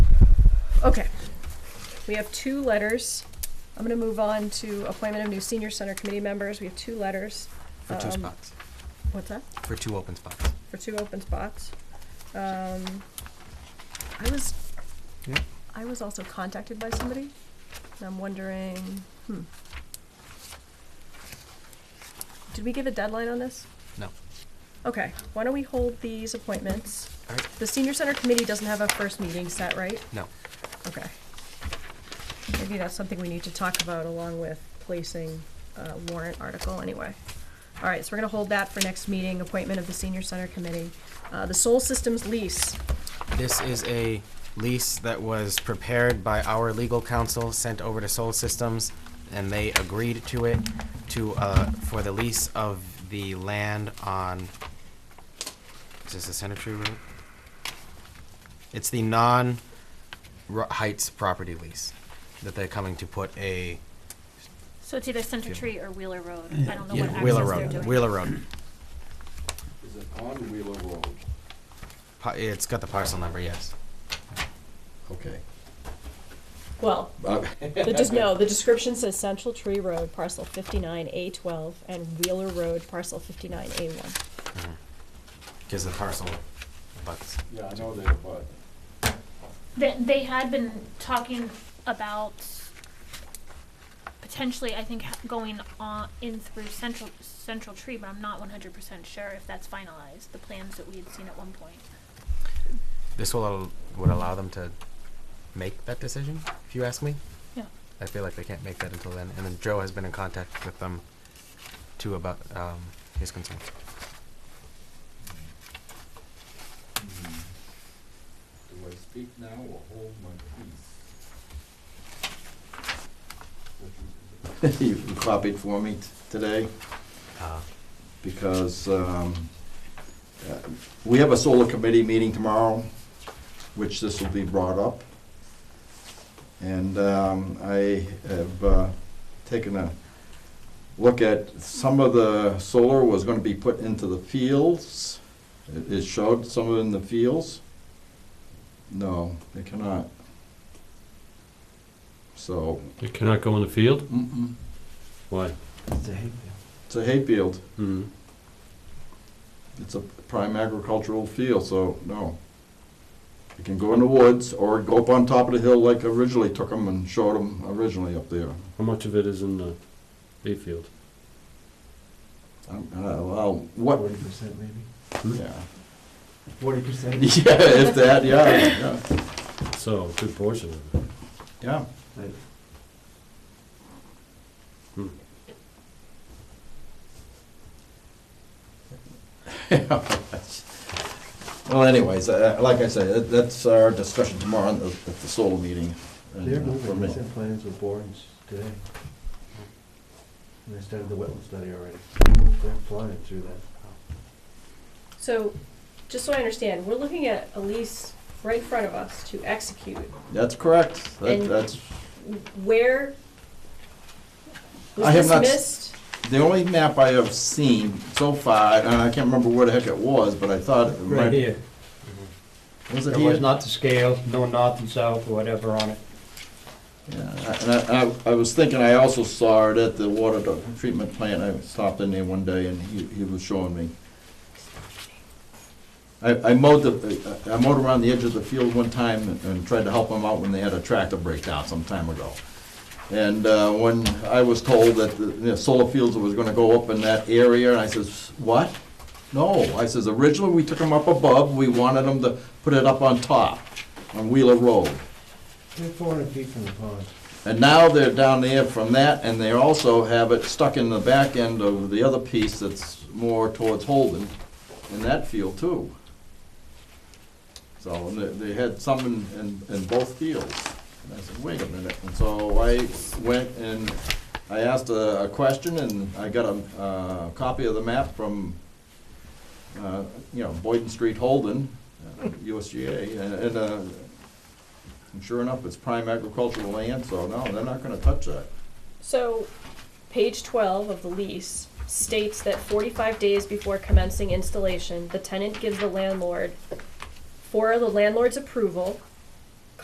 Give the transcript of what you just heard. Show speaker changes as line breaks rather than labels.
Okay. We have two letters. I'm gonna move on to appointment of new senior center committee members. We have two letters.
For two
Um,
spots,
What's that?
for two open spots.
For two open spots. Um, I was,
Yeah.
I was also contacted by somebody, and I'm wondering, hmm. Did we give a deadline on this?
No.
Okay, why don't we hold these appointments?
All right.
The senior center committee doesn't have a first meeting set, right?
No.
Okay. Maybe that's something we need to talk about along with placing a warrant article anyway. All right, so we're gonna hold that for next meeting, appointment of the senior center committee. Uh, the Soul Systems lease,
This is a lease that was prepared by our legal counsel, sent over to Soul Systems, and they agreed to it to, uh, for the lease of the land on, is this the Cemetery Road? It's the non Ro- Heights property lease that they're coming to put a,
So it's either Center
Yeah.
Tree or Wheeler Road. I don't know what access
Wheeler
they're
Road,
doing.
Wheeler Road.
Is it on Wheeler Road?
Pa- It's got the parcel number, yes.
Okay.
well, the, just, no, the description says Central Tree Road, parcel fifty-nine A twelve, and Wheeler Road, parcel fifty-nine A one.
Gives the parcel, but
Yeah, I know that, but
They, they had been talking about potentially, I think, ha- going on in through Central, Central Tree, but I'm not one hundred percent sure if that's finalized, the plans that we had seen at one point.
this will, al- would allow them to make that decision, if you ask me.
Yeah.
I feel like they can't make that until then, and then Joe has been in contact with them too about, um, his concerns.
Hmm. do I speak now or hold my peace? You copied for me t- today
Uh,
because um, uh, we have a solar committee meeting tomorrow, which this will be brought up. And um, I have uh, taken a look at, some of the solar was going to be put into the fields. It it showed some of it in the fields. No, they cannot. So,
You cannot go in the field?
mm-mm,
Why?
it's a hayfield.
Hmm.
It's a prime agricultural field, so no. You can go in the woods or go up on top of the hill like originally took them and showed them originally up there.
How much of it is in the hay field?
Um, uh, Well, what,
Forty percent maybe?
yeah.
Forty percent?
Yeah, if that, yeah, yeah,
So, a good portion of it.
yeah.
Hmm.
Well, anyways, uh, like I say, that- that's our discussion tomorrow at the at the solar meeting. and,
Their
uh, for
movement
me.
recent plans with borns today. And they started the wetland study already. They're flying through that.
So, just so I understand, we're looking at a lease right in front of us to execute.
That's correct. That-
And-
That's,
Where?
I
Was
have
this
not s-
missed?
the only map I have seen so far, and I can't remember where the heck it was, but I thought it might.
Right here.
Was it
There
here?
was not the scale, no north and south or whatever on it.
Yeah, and I, I- I was thinking, I also saw it at the water do- treatment plant, I stopped in there one day and he, he was showing me. I, I mowed the, I mowed around the edge of the field one time and- and tried to help them out when they had a tractor breakdown some time ago. And, uh, when I was told that the, the solar fields was gonna go up in that area, I says, what? No, I says, originally, we took them up above, we wanted them to put it up on top, on Wheeler Road.
They're four hundred feet from the pond.
And now they're down there from that, and they also have it stuck in the back end of the other piece that's more towards Holden, in that field too. So, and they, they had some in, in, in both fields. And I said, wait a minute, and so I went and I asked a, a question, and I got a, uh copy of the map from, uh, you know, Boyden Street Holden, uh, USGA, and, and, uh, and sure enough, it's prime agricultural land, so no, they're not gonna touch that.
So, page twelve of the lease states that forty-five days before commencing installation, the tenant gives the landlord, for the landlord's approval,